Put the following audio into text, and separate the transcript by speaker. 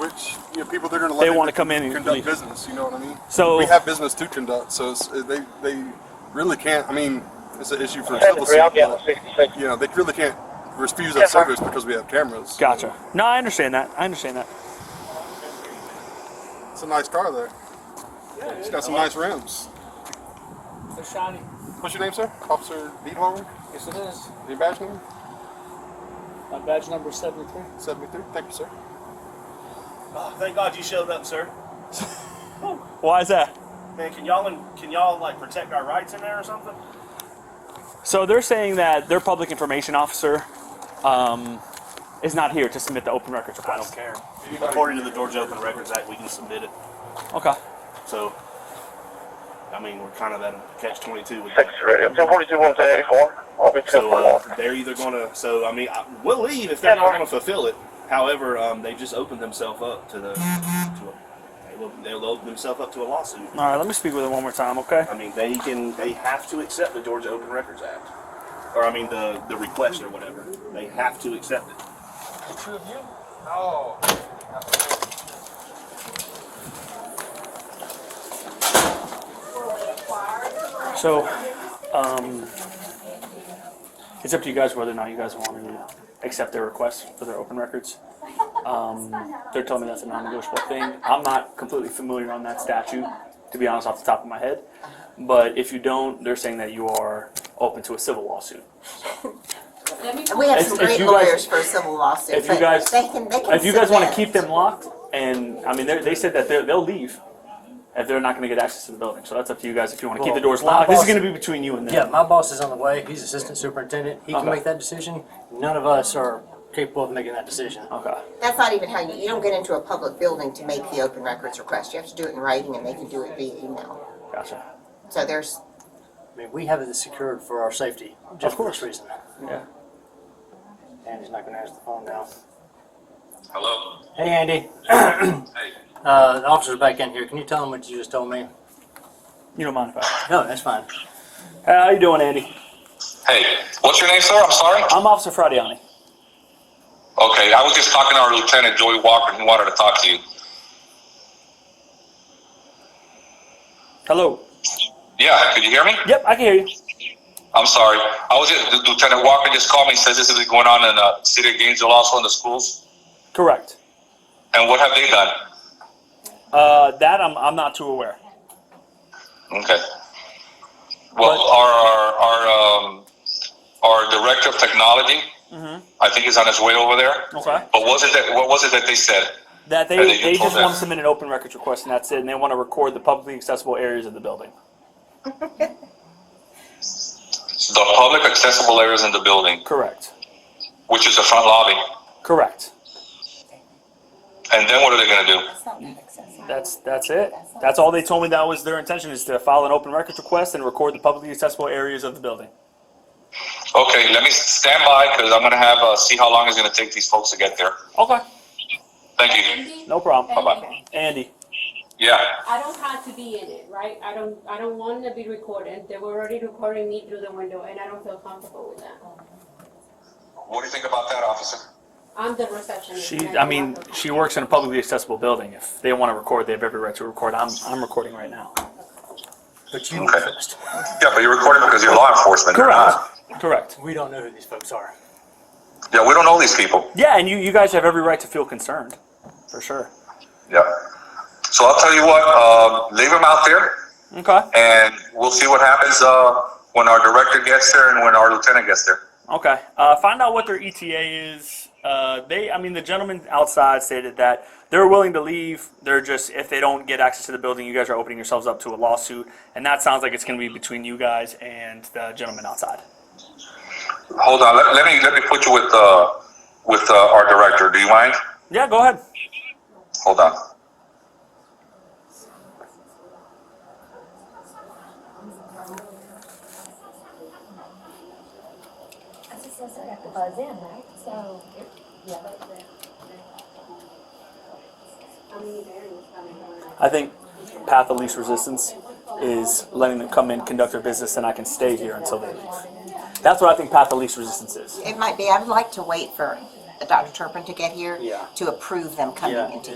Speaker 1: which you know, people they're going to let
Speaker 2: They
Speaker 1: in
Speaker 2: wanna come in and
Speaker 1: conduct
Speaker 2: leave. Oh.
Speaker 1: business. You know what I mean?
Speaker 2: So-
Speaker 1: we have business to conduct, so it's, they they really can't. I mean, it's an issue for civil
Speaker 3: Seventy-three, I'm
Speaker 1: suit,
Speaker 3: down
Speaker 1: but,
Speaker 3: to sixty-six.
Speaker 1: You know, they really can't refuse
Speaker 3: Yeah,
Speaker 1: that
Speaker 3: sir.
Speaker 1: service because we have cameras.
Speaker 2: Gotcha. No, I understand that. I understand that.
Speaker 1: It's a nice car there. It's got some nice rims.
Speaker 4: They're shiny.
Speaker 1: What's your name, sir? Officer Diethoff.
Speaker 4: Yes, it is.
Speaker 1: Your badge number?
Speaker 4: My badge number is 73.
Speaker 1: Seventy-three. Thank you, sir.
Speaker 5: Oh, thank God you showed up, sir.
Speaker 2: Why is that?
Speaker 5: Man, can y'all can y'all like protect our rights in there or something?
Speaker 2: So they're saying that their public information officer um, is not here to submit the open records
Speaker 6: I don't
Speaker 2: request.
Speaker 6: care. According to the Georgia Open Records Act, we can submit it.
Speaker 2: Okay.
Speaker 6: So, I mean, we're kind of at a catch twenty-two with
Speaker 3: Six,
Speaker 6: that.
Speaker 3: radio, two forty-two, one ten eighty-four. I'll be two
Speaker 6: So
Speaker 3: for
Speaker 6: uh,
Speaker 3: one.
Speaker 6: they're either gonna. So I mean, I, we'll leave if they're not gonna fulfill it. However, um, they just opened themselves up to the. To a, they'll, they'll open themselves up to a lawsuit.
Speaker 2: All right. Let me speak with him one more time. Okay.
Speaker 6: I mean, they can. They have to accept the Georgia Open Records Act, or I mean, the the request or whatever. They have to accept it.
Speaker 2: So, um, it's up to you guys whether or not you guys want to accept their request for their open records. Um, they're telling me that's a non-negotiable thing. I'm not completely familiar on that statute, to be honest, off the top of my head. But if you don't, they're saying that you are open to a civil lawsuit.
Speaker 7: And we have
Speaker 2: If-
Speaker 7: some
Speaker 2: if
Speaker 7: great
Speaker 2: you guys-
Speaker 7: lawyers for a civil lawsuit,
Speaker 2: if you
Speaker 7: but
Speaker 2: guys-
Speaker 7: they can, they can.
Speaker 2: If you guys want to
Speaker 7: submit.
Speaker 2: keep them locked, and I mean, they're- they said that they're- they'll leave if they're not going to get access to the building. So that's up to you guys if you want to keep the doors
Speaker 8: Well, my
Speaker 2: locked. This is
Speaker 8: boss-
Speaker 2: going to be between you and them.
Speaker 8: Yeah, my boss is on the way. He's assistant superintendent. He can
Speaker 2: Okay.
Speaker 8: make that decision. None of us are capable of making that decision.
Speaker 2: Okay.
Speaker 7: That's not even how you, you don't get into a public building to make the open records request. You have to do it in writing and they can do it via email.
Speaker 2: Gotcha.
Speaker 7: So there's,
Speaker 8: I mean, we have it secured for our safety, just for this reason.
Speaker 2: Yeah.
Speaker 8: And he's not gonna answer the phone now.
Speaker 9: Hello.
Speaker 8: Hey, Andy.
Speaker 9: Hey.
Speaker 8: Uh, the officer's back in here. Can you tell him what you just told me?
Speaker 2: You don't mind if I?
Speaker 8: No, that's fine.
Speaker 2: How you doing, Andy?
Speaker 9: Hey. What's your name, sir? I'm sorry.
Speaker 2: I'm Officer Fradiani.
Speaker 9: Okay. I was just talking to our lieutenant, Joey Walker, who wanted to talk to you.
Speaker 2: Hello.
Speaker 9: Yeah. Could you hear me?
Speaker 2: Yep, I can hear you.
Speaker 9: I'm sorry. I was just, Lieutenant Walker just called me and says this is going on in uh, the city of Gainesville, also in the schools.
Speaker 2: Correct.
Speaker 9: And what have they done?
Speaker 2: Uh, that I'm, I'm not too aware.
Speaker 9: Okay. Well,
Speaker 2: What?
Speaker 9: our our our, um, our director of technology, I think, is on his way over there.
Speaker 2: Mm-hmm. Okay.
Speaker 9: But was it that? What was it that they said?
Speaker 2: That they,
Speaker 9: Are they
Speaker 2: they
Speaker 9: told
Speaker 2: just want
Speaker 9: that?
Speaker 2: to submit an open records request and that's it, and they want to record the publicly accessible areas of the building.
Speaker 9: The public accessible areas in the building,
Speaker 2: Correct.
Speaker 9: which is the front lobby.
Speaker 2: Correct.
Speaker 9: And then what are they going to do?
Speaker 2: That's that's it. That's all they told me. That was their intention is to file an open records request and record the publicly accessible areas of the building.
Speaker 9: Okay, let me stand by because I'm gonna have, uh, see how long it's gonna take these folks to get there.
Speaker 2: Okay.
Speaker 9: Thank you.
Speaker 2: No problem.
Speaker 9: Bye-bye.
Speaker 2: Andy.
Speaker 9: Yeah,
Speaker 10: I don't have to be in it, right? I don't, I don't want to be recorded. They were already recording me through the window and I don't feel comfortable with that.
Speaker 9: what do you think about that, officer?
Speaker 10: I'm the receptionist.
Speaker 2: She.
Speaker 10: and
Speaker 2: I
Speaker 10: do
Speaker 2: mean,
Speaker 10: not feel
Speaker 2: she works in a publicly accessible building. If they want to record, they have every right to record. I'm I'm recording right now.
Speaker 8: But you
Speaker 9: Okay.
Speaker 8: first.
Speaker 9: Yeah, but you're recording because you're law enforcement, you're not.
Speaker 2: Correct.
Speaker 8: We don't know who these folks are.
Speaker 9: Yeah, we don't know these people.
Speaker 2: Yeah, and you you guys have every right to feel concerned, for sure.
Speaker 9: Yeah. So I'll tell you what, uh, leave them out there
Speaker 2: Okay.
Speaker 9: and we'll see what happens, uh, when our director gets there and when our lieutenant gets there.
Speaker 2: Okay. Uh, find out what their ETA is. Uh, they, I mean, the gentleman outside stated that they're willing to leave. They're just if they don't get access to the building, you guys are opening yourselves up to a lawsuit, and that sounds like it's going to be between you guys and the gentleman outside.
Speaker 9: Hold on, let, let me, let me put you with, uh, with, uh, our director, do you mind?
Speaker 2: Yeah, go ahead.
Speaker 9: Hold on.
Speaker 11: I just said I got to buzz in, right? So, it- yeah.
Speaker 10: comfortable. I mean, there is coming on.
Speaker 2: I think path of least resistance is letting them come in, conduct their business, and I can stay here until they leave. That's what I think path of least resistance is.
Speaker 7: it might be, I would like to wait for Dr. Turpin to get here to approve them coming
Speaker 8: Yeah.
Speaker 7: into